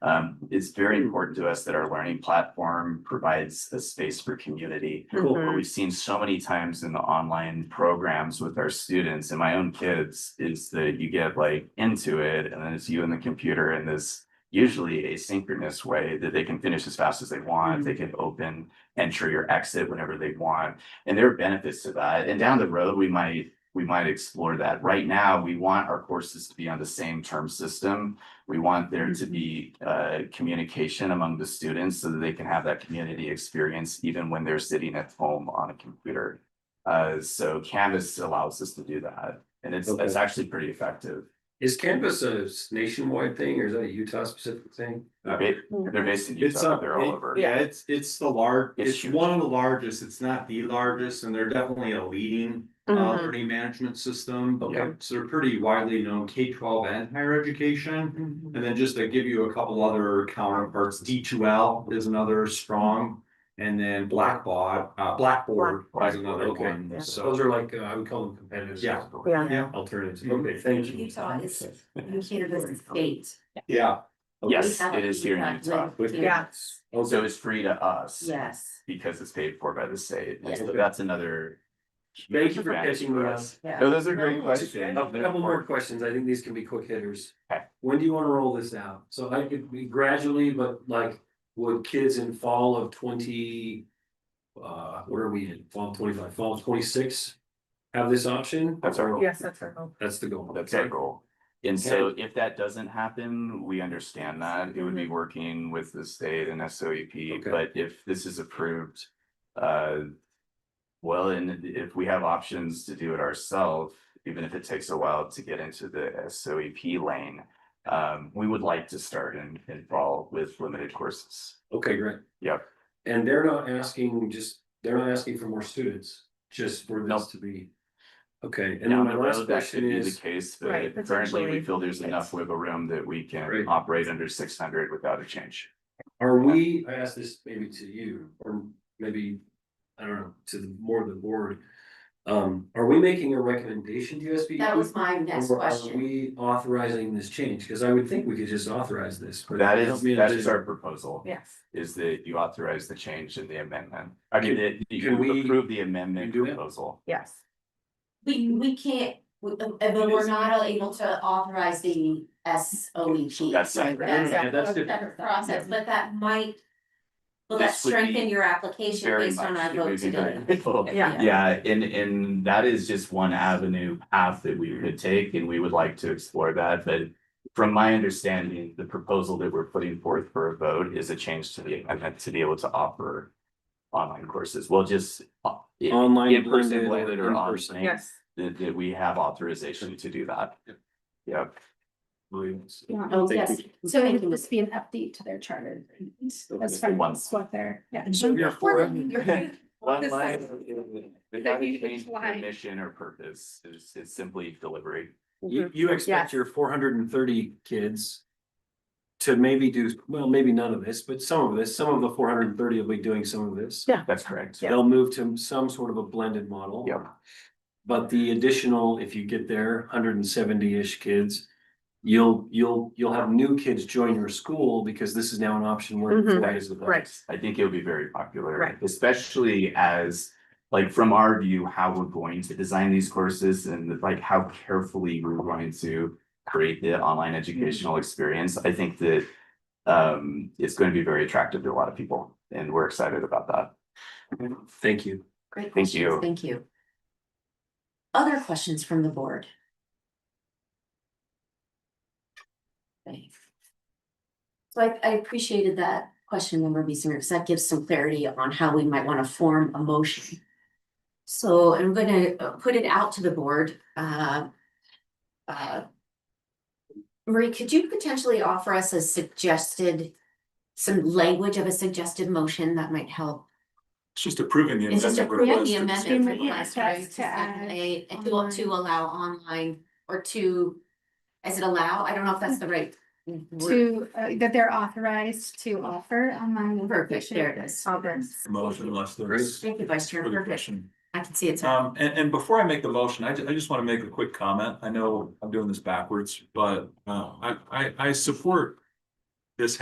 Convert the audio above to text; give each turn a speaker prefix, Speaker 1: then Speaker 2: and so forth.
Speaker 1: Um, it's very important to us that our learning platform provides a space for community.
Speaker 2: Cool.
Speaker 1: What we've seen so many times in the online programs with our students and my own kids is that you get like into it and then it's you and the computer in this usually asynchronous way that they can finish as fast as they want. They can open, enter your exit whenever they want. And there are benefits to that. And down the road, we might, we might explore that. Right now, we want our courses to be on the same term system. We want there to
Speaker 3: Mm-hmm.
Speaker 2: Mhm.
Speaker 1: be uh communication among the students so that they can have that community experience even when they're sitting at home on a computer. Uh, so Canvas allows us to do that, and it's it's
Speaker 3: Okay.
Speaker 1: actually pretty effective.
Speaker 3: Is Canvas a nationwide thing or is that a Utah specific thing?
Speaker 1: They're ba-
Speaker 2: Mm-hmm.
Speaker 1: they're based in
Speaker 4: It's
Speaker 3: uh,
Speaker 1: Utah,
Speaker 4: up,
Speaker 1: but they're all over.
Speaker 4: yeah, it's, it's the large,
Speaker 1: It's
Speaker 4: it's
Speaker 1: huge.
Speaker 4: one of the largest, it's not the largest, and they're definitely a leading. Uh, learning management system,
Speaker 2: Okay.
Speaker 4: so they're pretty widely known, K twelve and higher education. And then just to give you a couple other counterparts, D two L is another strong, and then Blackboard, uh, Blackboard is another
Speaker 3: Okay.
Speaker 4: one,
Speaker 3: So
Speaker 4: so.
Speaker 3: those are like, uh, I would call them competitors.
Speaker 4: Yeah.
Speaker 1: Mm-hmm.
Speaker 2: Yeah.
Speaker 4: Yeah,
Speaker 3: Alternatives. Okay, thank you.
Speaker 5: Utah is, Utah is a state.
Speaker 4: yeah. Okay.
Speaker 1: Yes, it is here in Utah.
Speaker 2: Yes.
Speaker 1: So it's free to us.
Speaker 5: Yes,
Speaker 1: Because it's paid for by the state. And so
Speaker 3: Yeah.
Speaker 1: that's another.
Speaker 3: Thank you for
Speaker 1: advantage
Speaker 3: catching me up.
Speaker 5: yeah.
Speaker 1: No, those are great
Speaker 2: No,
Speaker 3: Just
Speaker 1: questions.
Speaker 3: A couple more questions. I think these can be quick hitters.
Speaker 1: Okay.
Speaker 3: When do you want to roll this out? So I could be gradually, but like, would kids in fall of twenty? Uh, where are we in? Fall twenty five, fall twenty six? Have this option?
Speaker 1: That's our-
Speaker 2: Yes, that's our hope.
Speaker 3: That's the goal.
Speaker 1: That's our goal. And so if that doesn't happen, we understand that it would be working with the state and S O E P,
Speaker 3: Mm-hmm. Okay.
Speaker 1: but if this is approved. Uh. Well, and if we have options to do it ourselves, even if it takes a while to get into the S O E P lane. Um, we would like to start and involve with limited courses.
Speaker 3: Okay, great.
Speaker 1: Yep.
Speaker 3: And they're not asking just, they're not asking for more students, just for this
Speaker 1: Nope.
Speaker 3: to be. Okay, and then
Speaker 1: Down
Speaker 3: my
Speaker 1: the
Speaker 3: last
Speaker 1: road, that should
Speaker 3: question
Speaker 1: be the
Speaker 3: is,
Speaker 1: case,
Speaker 2: Right,
Speaker 1: but currently we
Speaker 2: potentially.
Speaker 1: feel there's
Speaker 2: Yes.
Speaker 1: enough wiggle room that we
Speaker 3: Right.
Speaker 1: can operate under six hundred without a change.
Speaker 3: are we, I asked this maybe to you, or maybe, I don't know, to the more of the board. Um, are we making a recommendation to SB?
Speaker 5: That was my next
Speaker 3: E? Are
Speaker 5: question.
Speaker 3: we authorizing this change? Cause I would think we could just authorize this. but
Speaker 1: That
Speaker 3: help
Speaker 1: is,
Speaker 3: me
Speaker 1: that is
Speaker 3: envision.
Speaker 1: our proposal,
Speaker 2: Yes.
Speaker 1: is that you authorize the change in the amendment. I mean, that you
Speaker 3: Can we-
Speaker 1: approve the amendment
Speaker 3: Can we do that?
Speaker 1: proposal.
Speaker 2: Yes.
Speaker 5: We, we can't, we- uh, uh, but we're not able to authorize the S O E P.
Speaker 1: That's separate.
Speaker 5: That's
Speaker 2: Yeah.
Speaker 5: a
Speaker 3: Yeah, that's different.
Speaker 5: separate process, but that might. Will that
Speaker 1: This would be
Speaker 5: strengthen your application
Speaker 1: Very
Speaker 5: based on
Speaker 1: much,
Speaker 5: our
Speaker 1: it
Speaker 5: vote
Speaker 1: would be very
Speaker 5: today?
Speaker 1: helpful.
Speaker 2: Yeah.
Speaker 1: Yeah, and, and that is just one avenue path that we could take and we would like to explore that, but from my understanding, the proposal that we're putting forth for a vote is a change to the amendment to be able to offer online courses. We'll just uh, in
Speaker 3: Online.
Speaker 1: in person,
Speaker 3: blended
Speaker 1: blended
Speaker 3: in
Speaker 1: or
Speaker 3: person.
Speaker 1: online,
Speaker 2: Yes.
Speaker 1: that, that we have authorization to do that. Yep.
Speaker 5: Oh,
Speaker 3: Thank
Speaker 5: yes,
Speaker 6: So it would just be an update to their charter as far
Speaker 1: One.
Speaker 6: as what they're, yeah.
Speaker 3: You're for it.
Speaker 1: One
Speaker 6: This
Speaker 1: line.
Speaker 6: is-
Speaker 1: They
Speaker 6: that
Speaker 1: haven't
Speaker 6: you
Speaker 1: changed their
Speaker 6: apply.
Speaker 1: mission or purpose, it's, it's simply delivery.
Speaker 2: Mm-hmm.
Speaker 3: You, you expect
Speaker 2: Yes.
Speaker 3: your four hundred and thirty kids. To maybe do, well, maybe none of this, but some of this, some of the four hundred and thirty will be doing some of this.
Speaker 2: Yeah.
Speaker 1: That's correct.
Speaker 2: Yeah.
Speaker 3: They'll move to some sort of a blended model.
Speaker 1: Yep.
Speaker 3: But the additional, if you get there, hundred and seventy-ish kids. You'll, you'll, you'll have new kids join your school because this is now an option where.
Speaker 2: Mhm.
Speaker 3: that is the best.
Speaker 2: Right.
Speaker 1: I think it'll be very popular.
Speaker 2: Right.
Speaker 1: Especially as, like, from our view, how we're going to design these courses and like how carefully we're going to create the online educational experience. I think that um, it's going to be very attractive to a lot of people and we're excited about that.
Speaker 3: Thank you.
Speaker 5: great
Speaker 1: Thank
Speaker 5: questions,
Speaker 1: you.
Speaker 5: thank you. Other questions from the board? Okay. So I, I appreciated that question, Member Meisinger, because that gives some clarity on how we might want to form a motion. So I'm gonna uh, put it out to the board, uh, uh, Marie, could you potentially offer us a suggested, some language of a suggested motion that might help
Speaker 7: It's just approving the
Speaker 5: it's just
Speaker 7: amendment
Speaker 5: approving
Speaker 7: request.
Speaker 5: the
Speaker 7: to the
Speaker 5: amendment
Speaker 7: schedule.
Speaker 5: request,
Speaker 6: Yeah,
Speaker 5: right?
Speaker 6: that's
Speaker 5: To
Speaker 6: to add
Speaker 5: say, and to, to
Speaker 6: online.
Speaker 5: allow online or to, is it allow? I don't know if that's the right. word.
Speaker 6: To, uh, that they're authorized to offer online.
Speaker 5: Perfect, there it
Speaker 6: education.
Speaker 5: is.
Speaker 2: Others.
Speaker 7: Motion unless there's
Speaker 5: Thank you, Vice Chair.
Speaker 7: further
Speaker 5: Perfect.
Speaker 7: question.
Speaker 5: I can see it's.
Speaker 7: Um, and, and before I make the motion, I, ju- I just want to make a quick comment. I know I'm doing this backwards, but, uh, I, I, I support